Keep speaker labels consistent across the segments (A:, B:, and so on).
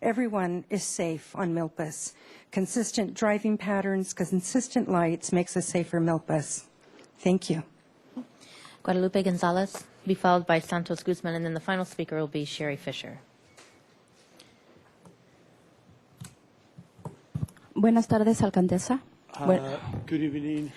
A: Everyone is safe on Milpas. Consistent driving patterns, consistent lights makes a safer Milpas. Thank you.
B: Guadalupe Gonzalez, be followed by Santos Guzman, and then the final speaker will be Sherry Fisher.
C: Buenas tardes, alcaldesa. Buen-
D: Uh, Good evening,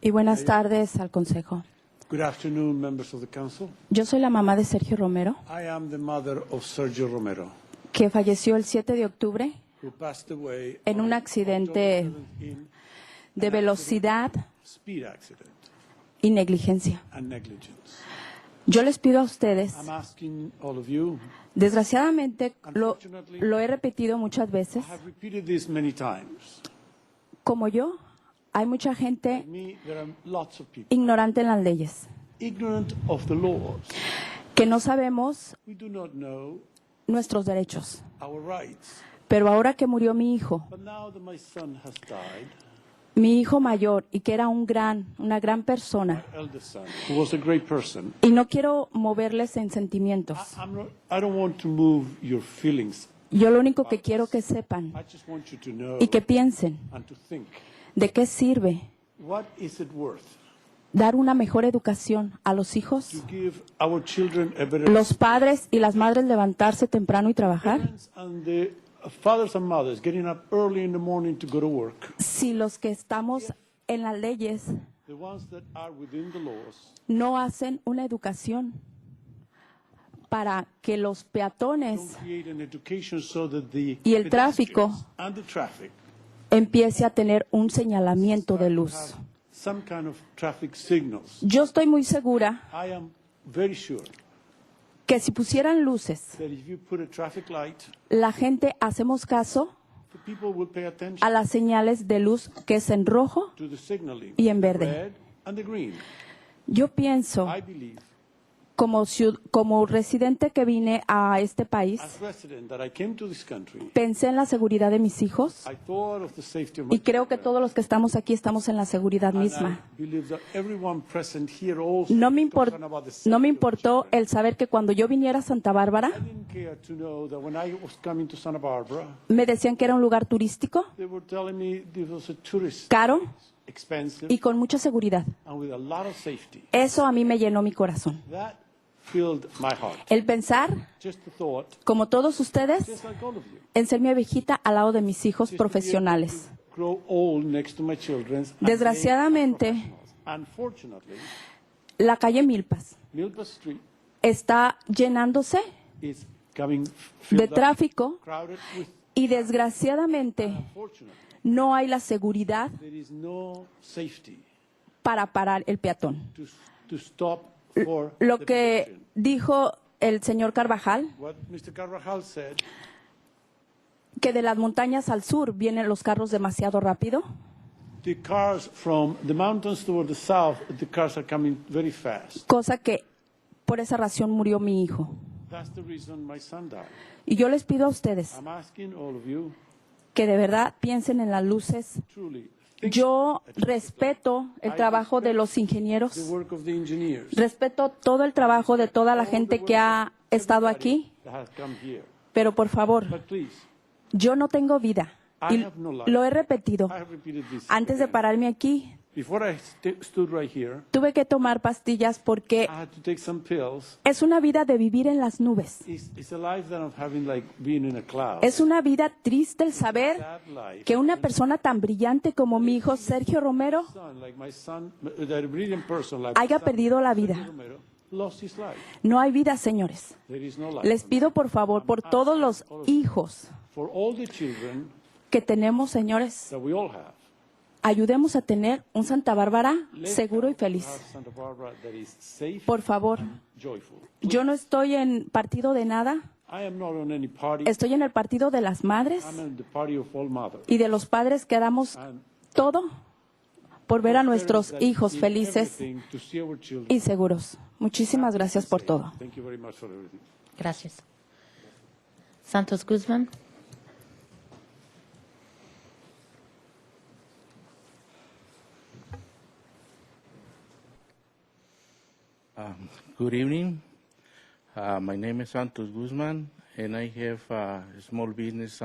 C: y buenas tardes al consejo.
D: good afternoon, members of the council.
C: Yo soy la mamá de Sergio Romero,
D: I am the mother of Sergio Romero,
C: que falleció el 7 de octubre
D: who passed away
C: En
D: on
C: un accidente.
D: October 17
C: de velocidad
D: speed accident
C: y negligencia.
D: and negligence.
C: Yo les pido a ustedes,
D: I'm asking all of you,
C: desgraciadamente lo, lo he repetido muchas veces,
D: I have repeated this many times.
C: como yo, hay mucha gente
D: Like me, there are lots of people
C: ignorante en las leyes,
D: ignorant of the laws.
C: que no sabemos
D: We do not know
C: nuestros derechos.
D: our rights.
C: Pero ahora que murió mi hijo,
D: But now that my son has died,
C: mi hijo mayor, y que era un gran, una gran
D: my
C: persona,
D: eldest son, who was a great person,
C: y no quiero moverles en
D: I,
C: sentimientos.
D: I'm not, I don't want to move your feelings
C: Yo lo único que quiero que sepan
D: I just want you to know
C: y que piensen
D: and to think
C: de qué sirve
D: what is it worth
C: dar una mejor educación a los
D: to
C: hijos,
D: give our children a better
C: los padres y las madres levantarse temprano y trabajar,
D: parents and the fathers and mothers getting up early in the morning to go to work
C: si los que estamos en las leyes
D: the ones that are within the laws
C: no hacen una educación para que los
D: don't
C: peatones
D: create an education so that the
C: Y el tráfico
D: pedestrians and the traffic
C: empiece a tener un señalamiento de luz.
D: have some kind of traffic signals
C: Yo estoy muy segura
D: I am very sure
C: que si pusieran luces,
D: that if you put a traffic light
C: la gente hacemos caso
D: the people will pay attention
C: a las señales de luz que es en rojo.
D: to the signaling
C: Y en verde.
D: red and the green
C: Yo pienso
D: I believe
C: como, ciu- como residente que vine a este país,
D: as resident that I came to this country
C: pensé en la seguridad de mis hijos
D: I thought of the safety of my
C: y creo que todos los que estamos aquí estamos en la seguridad
D: children, and
C: misma.
D: I believe that everyone present here also
C: No me,
D: concerned
C: impor-
D: about the safety
C: no me
D: of
C: importó
D: children.
C: el saber que cuando yo viniera a Santa Bárbara
D: I didn't care to know that when I was coming to Santa Barbara,
C: me decían que era un lugar turístico,
D: they were telling me this was a tourist,
C: caro
D: expensive,
C: y con mucha seguridad.
D: and with a lot of safety.
C: Eso a mí me llenó mi corazón.
D: That filled my heart.
C: El pensar,
D: Just the thought,
C: como todos ustedes,
D: just like all of you.
C: en ser mi ovejita al lado de mis hijos
D: Just to be able
C: profesionales.
D: to Grow old next to my children. and they are
C: Desgraciadamente-
D: professionals. Unfortunately,
C: La calle Milpas
D: Milpa Street
C: está llenándose
D: is coming
C: de
D: filled up,
C: tráfico
D: crowded with,
C: y desgraciadamente
D: unfortunately,
C: no hay la seguridad
D: There is no safety
C: para parar el peatón.
D: to, to stop for
C: Lo
D: the
C: que
D: pedestrian.
C: dijo el señor Carvajal,
D: What Mr. Carvajal said,
C: que de las montañas al sur vienen los carros demasiado rápido,
D: the cars from the mountains toward the south, the cars are coming very fast.
C: cosa que por esa razón murió mi hijo.
D: That's the reason my son died.
C: Y yo les pido a ustedes
D: I'm asking all of you,
C: que de verdad piensen en las luces.
D: truly, think
C: Yo respeto el trabajo de los
D: the
C: ingenieros,
D: work of the engineers,
C: respeto todo el trabajo de toda la gente que ha estado aquí,
D: that has come here.
C: pero por favor,
D: But please,
C: yo no tengo vida. Y lo he repetido.
D: I have repeated this.
C: Antes de
D: again.
C: pararme aquí,
D: Before I st- stood right here,
C: tuve que tomar pastillas porque
D: I had to take some pills.
C: es una vida de vivir en las nubes.
D: It's, it's a life that I'm having like being in a cloud.
C: Es una vida triste el saber
D: That life.
C: que una persona tan brillante como mi hijo Sergio Romero
D: son, like my son, that brilliant person, like
C: haya
D: my son,
C: perdido la
D: Sergio
C: vida.
D: Romero, lost his life.
C: no hay vida, señores.
D: There is no life.
C: Les pido por favor por todos los hijos
D: For all the children
C: que tenemos, señores,
D: that we all have,
C: ayudemos a tener un Santa Bárbara
D: let's
C: seguro y
D: help to
C: feliz.
D: have Santa Barbara that is safe,
C: Por favor,
D: joyful.
C: yo no estoy en partido de nada,
D: I am not on any party.
C: estoy en el partido de las madres
D: I'm on the party of all mothers.
C: y de los padres que damos todo por ver a nuestros
D: Parents that
C: hijos
D: did
C: felices
D: everything to see our children
C: y seguros. Muchísimas gracias por
D: safe.
C: todo.
D: Thank you very much for everything.
B: Gracias. Santos Guzmán.
E: Good evening. Uh, my name is Santos Guzman, and I have uh, a small business